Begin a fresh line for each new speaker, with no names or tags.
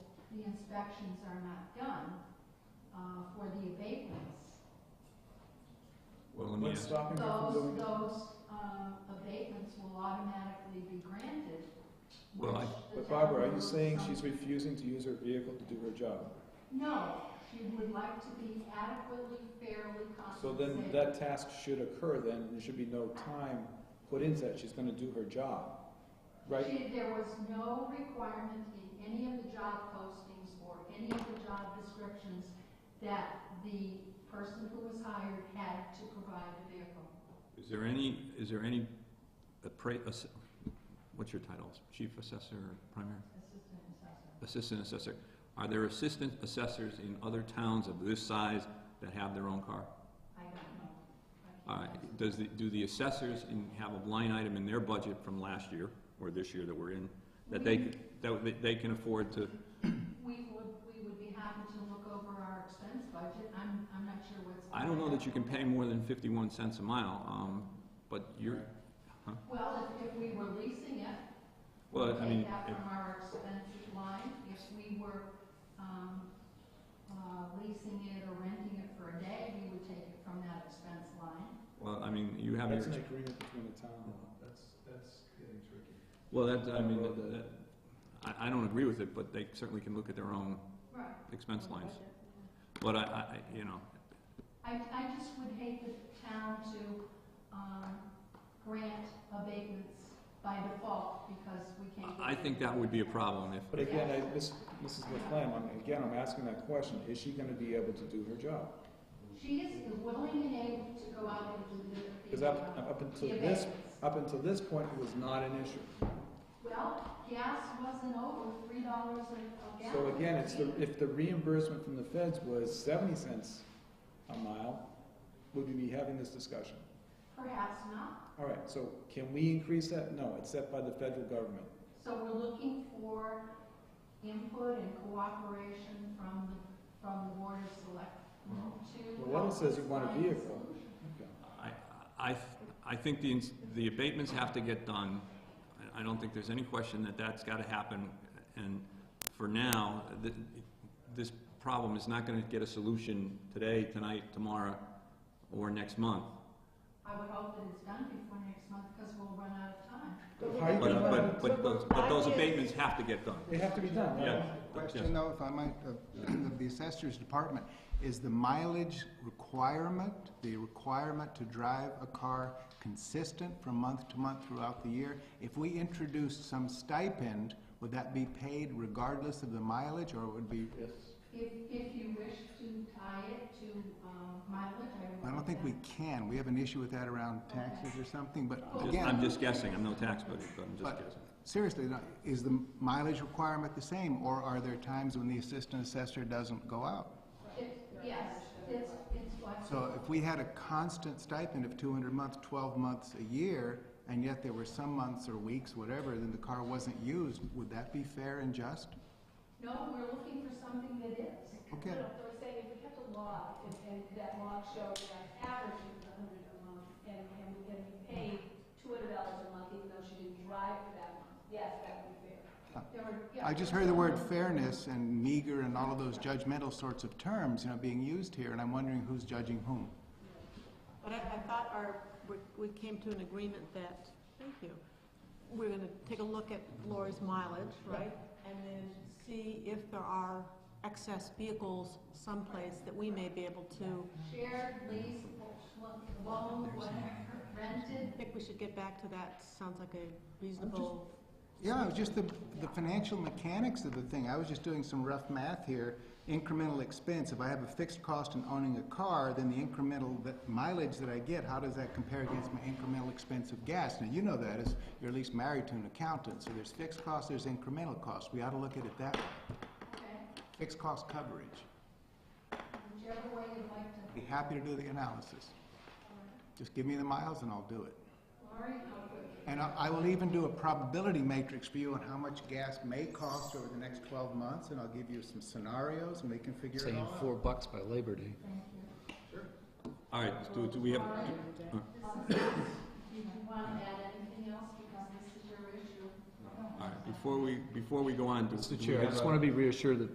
the inspections are not done uh, for the abatements.
Well, let me
What's
ask,
stopping you from
Those,
doing it?
those um, abatements will automatically be granted.
Well, I-
which the
But Barbara, are
town
you saying
will-
she's refusing to use her vehicle to do her job?
No, she would like to be adequately, fairly compensated.
So then that task should occur then, and there should be no time put into that, she's gonna do her job, right?
She- There was no requirement in any of the job postings or any of the job descriptions that the person who was hired had to provide a vehicle.
is there any, is there any, appra- ass- what's your title? Chief assessor, primary?
Assistant assessor.
Assistant assessor. Are there assistant assessors in other towns of this size that have their own car?
I don't know. I
All
can't answer.
right, does the, do the assessors in, have a line item in their budget from last year, or this year that we're in, that
Mm-hmm.
they, c- that they- they can afford to,
We would, we would be happy to look over our expense budget. I'm, I'm not sure what's.
I don't know that you can pay more than fifty-one cents a mile, um, but you're,
Well, if, if we were leasing it,
well, I
Take
mean,
that
if-
from our expenses line, if we were, um, uh, leasing it or renting it for a day, we would take it from that expense line.
well, I mean, you have your.
That's an agreement between the town. That's, that's getting tricky.
Well, that, I mean,
Well,
that-
the-
that- I, I don't agree with it, but they certainly can look at their own
Right.
expense lines. But I, I, I- you know,
I, I just would hate the town to, um, grant abatements by default because we can't.
I I think that would be a problem if,
But again, I, Miss, Mrs. McLean, I'm, again, I'm asking that question, is she gonna be able to do her job?
She is willing and able to go out and do the.
Cause up, up until
the
this,
abatements.
up until this point, it was not an issue.
Well, gas wasn't over three dollars a gallon.
So again, it's the, if the reimbursement from the feds was seventy cents a mile, would we be having this discussion?
Perhaps not.
All right, so can we increase that? No, it's set by the federal government.
So we're looking for input and cooperation from, the from the Board of Selectmen to.
Well, one
help
says you
us
want a
find
vehicle.
solution.
Okay.
I, I, I think the, ins- the abatements have to get done. I, I don't think there's any question that that's gotta happen, and for now, th- this problem is not gonna get a solution today, tonight, tomorrow, or next month.
I would hope that it's done before next month, because we'll run out of time.
How are you
But,
gonna,
but,
let
but those, but those abatements have to get done.
them- they have to be done, right?
Yeah.
Question though, if I might, of of the assessor's department, is the mileage requirement, the requirement to drive a car consistent from month to month throughout the year? If we introduced some stipend, would that be paid regardless of the mileage, or would be?
If, if you wish to tie it to um, mileage, I would.
I don't think we can, we have an issue with that around taxes or something, but
Just-
again. uh,
I'm just guessing, I'm no tax buddy, but I'm just
But-
guessing.
Seriously, now, is the mileage requirement the same, or are there times when the assistant assessor doesn't go out?
It- Yes, it's, it's what.
So if we had a constant stipend of two hundred months, twelve months a year, and yet there were some months or weeks, whatever, then the car wasn't used, would that be fair and just?
No, we're looking for something that is.
Okay,
No, they were saying if we kept a log, and, and that log showed that average was a hundred a month, and, and, and we paid two hundred dollars a month, even though she didn't drive for that month, yes, that would be fair.
There were- yeah,
Uh, I just heard the word fairness and meager and all of those judgmental sorts of terms, you know, being used here, and I'm wondering who's judging whom.
But I, I thought our, we- we came to an agreement that, thank you, we're gonna take a look at Lori's mileage, right? And then see if there are excess vehicles someplace that we may be able to,
Shared, leased, loan, whatever, rented.
I think we should get back to that, sounds like a reasonable.
Yeah, it was just the, the financial mechanics of the thing. I was just doing some rough math here. Incremental expense, if I have a fixed cost in owning a car, then the incremental that- mileage that I get, how does that compare against my incremental expense of gas? Now, you know that, as you're at least married to an accountant, so there's fixed costs, there's incremental costs. We ought to look at it that way.
Okay,
Fixed cost coverage.
whichever way you'd like to.
Be happy to do the analysis. Just give me the miles and I'll do it.
Lori, how quick?
And I I will even do a probability matrix for you on how much gas may cost over the next 12 months, and I'll give you some scenarios, and we can figure it
Saying
all
four
out.
bucks by Labor Day.
All right, do, do we have,
This is- You want to add anything else because this is your issue?
all right, before we, before we go on, do do we
I
have
just
a-
want to be reassured that